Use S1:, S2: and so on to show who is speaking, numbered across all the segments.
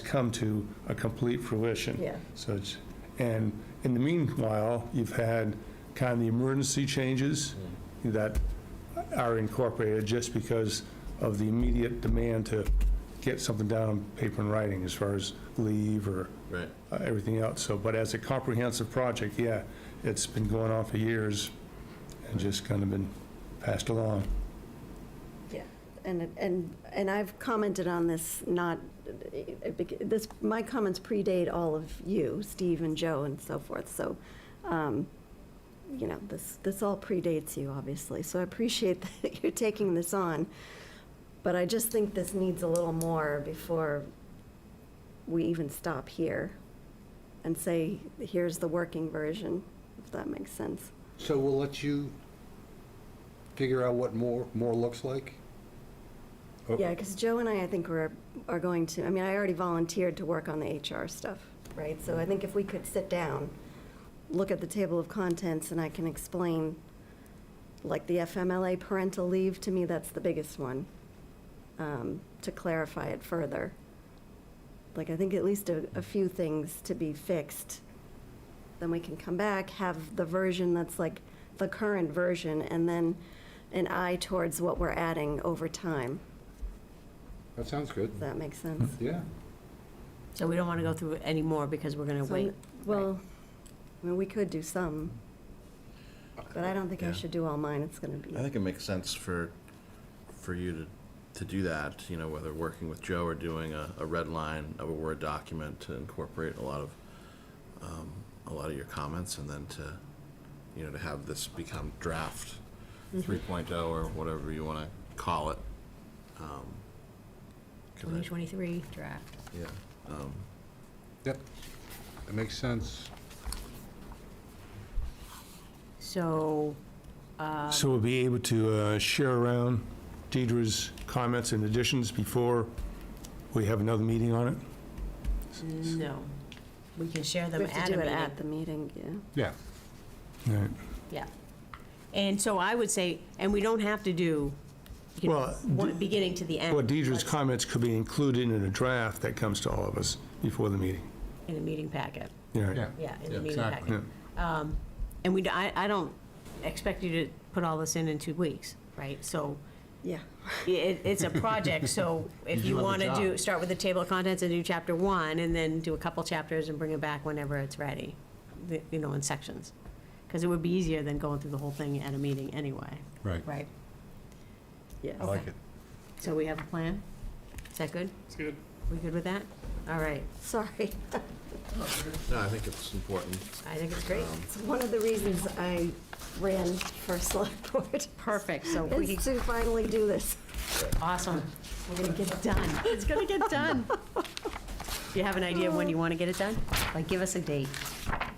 S1: come to a complete fruition.
S2: Yeah.
S1: So it's, and in the meanwhile, you've had kind of the emergency changes that are incorporated just because of the immediate demand to get something down on paper and writing as far as leave or
S3: Right.
S1: uh, everything else. So, but as a comprehensive project, yeah, it's been going on for years and just kind of been passed along.
S2: Yeah, and, and, and I've commented on this, not, this, my comments predate all of you, Steve and Joe and so forth, so, um, you know, this, this all predates you, obviously, so I appreciate that you're taking this on, but I just think this needs a little more before we even stop here and say, here's the working version, if that makes sense.
S4: So we'll let you figure out what more, more looks like? Oh.
S2: Yeah, because Joe and I, I think we're, are going to, I mean, I already volunteered to work on the HR stuff, right? So I think if we could sit down, look at the table of contents, and I can explain, like, the FMLA parental leave, to me, that's the biggest one, um, to clarify it further. Like, I think at least a, a few things to be fixed. Then we can come back, have the version that's like the current version, and then an eye towards what we're adding over time.
S4: That sounds good.
S2: Does that make sense?
S3: Hmm.
S4: Yeah.
S5: So we don't want to go through any more because we're going to
S2: So,
S5: wait.
S2: Well, I mean, we could do some, but I don't think I
S3: Yeah.
S2: should do all mine. It's gonna be,
S3: I think it makes sense for, for you to, to do that, you know, whether working with Joe or doing a, a red line of a Word document to incorporate a lot of, um, a lot of your comments and then to, you know, to have this become draft three oh or whatever you wanna call it. Um, 'cause I-
S5: 2023 draft.
S3: Yeah, um,
S4: Yep. That makes sense.
S5: So,
S1: So we'll be able to uh, share around Deidre's comments and additions before we have another meeting on it?
S5: no, we can share
S2: we
S5: them
S2: have
S5: at
S2: to
S5: a
S2: do it
S5: meeting.
S2: at the meeting, yeah.
S4: Yeah.
S1: Right.
S5: Yeah. And so I would say, and we don't have to do, you know,
S1: Well,
S5: one- beginning to the end.
S1: Well, Deidre's
S5: Let's-
S1: comments could be included in a draft that comes to all of us before the meeting.
S5: In a meeting packet.
S1: Yeah.
S4: Yeah.
S5: Yeah, in the
S4: Yeah,
S5: meeting
S4: exactly.
S5: packet. Um, And we, d- I, I don't expect you to put all this in in two weeks, right? So
S2: Yeah,
S5: it, it's a project, so if
S4: You
S5: you
S4: do have a
S5: want to do,
S4: job.
S5: start with the table of contents and do chapter one, and then do a couple chapters and bring it back whenever it's ready, the- you know, in sections. Because it would be easier than going through the whole thing at a meeting anyway.
S4: Right.
S5: Right.
S2: yes.
S4: it.
S5: So we have a plan? Is that good? It's good. We good with that? All right,
S2: Sorry.
S3: no, I think it's important.
S5: I think it's great.
S4: Um,
S2: It's one of the reasons I ran for select board,
S5: Perfect, so we,
S2: is to finally do this.
S5: awesome. We're gonna get it done. It's gonna get done. Do you have an idea of when you want to get it done? Like, give us a date.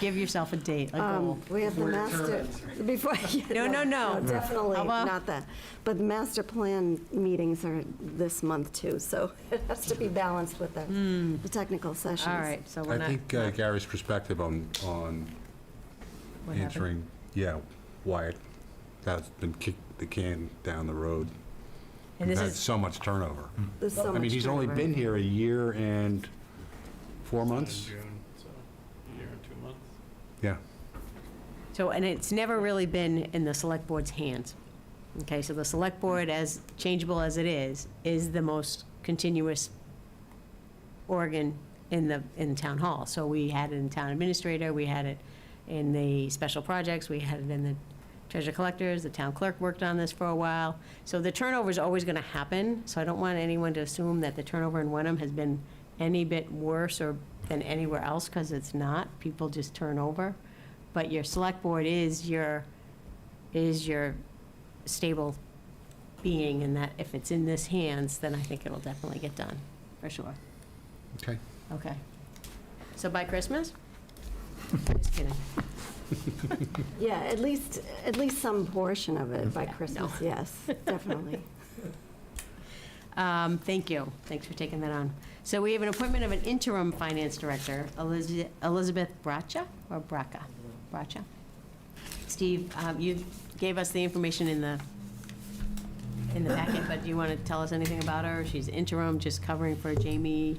S5: Give yourself a date, a goal.
S2: Um, We have the master, before.
S5: No, no, no.
S2: Definitely
S5: How about-
S2: not that. But the master plan meetings are this month too, so it has to be balanced with the, the technical sessions.
S5: All right, so we're
S4: I
S5: not.
S4: think uh, Gary's perspective on, on
S5: what happened?
S4: answering, yeah, why it has been kicked the can down the road. We've
S5: And this
S4: had
S5: is,
S4: so much turnover.
S2: There's so
S4: I mean,
S2: much
S4: he's only
S2: turnover.
S4: been here a year and four months.
S6: June, so a year and two months.
S4: Yeah.
S5: so, and it's never really been in the select board's hands. Okay, so the select board, as changeable as it is, is the most continuous organ in the, in town hall. So we had it in town administrator, we had it in the special projects, we had it in the treasure collectors, the town clerk worked on this for a while. So the turnover is always gonna happen, so I don't want anyone to assume that the turnover in Wenham has been any bit worse or than anywhere else, because it's not, people just turn over. But your select board is your, is your stable being, and that if it's in this hands, then I think it'll definitely get done, for sure.
S4: Okay.
S5: Okay. So by Christmas? Just kidding.
S2: Yeah, at least, at least some portion of it by Christmas, yes, definitely.
S5: Um, Thank you. Thanks for taking that on. So we have an appointment of an interim finance director, Eliz- Elizabeth Bracha, or Braca? Bracha? Steve, um, you gave us the information in the, in the packet, but do you want to tell us anything about her? She's interim, just covering for Jamie